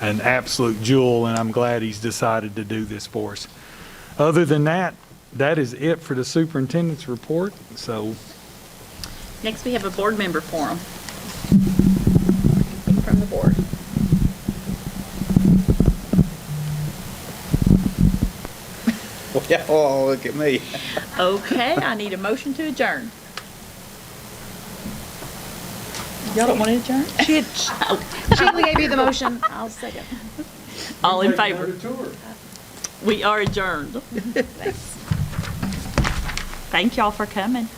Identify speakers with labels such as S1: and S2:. S1: an absolute jewel, and I'm glad he's decided to do this for us. Other than that, that is it for the superintendent's report, so
S2: Next, we have a board member forum. Anything From the board.
S3: Yeah, oh, look at me.
S2: Okay, I need a motion to adjourn. Y'all don't want to adjourn?
S4: She, Sheila gave you the motion. I'll second.
S2: All in favor? We are adjourned. Thank y'all for coming.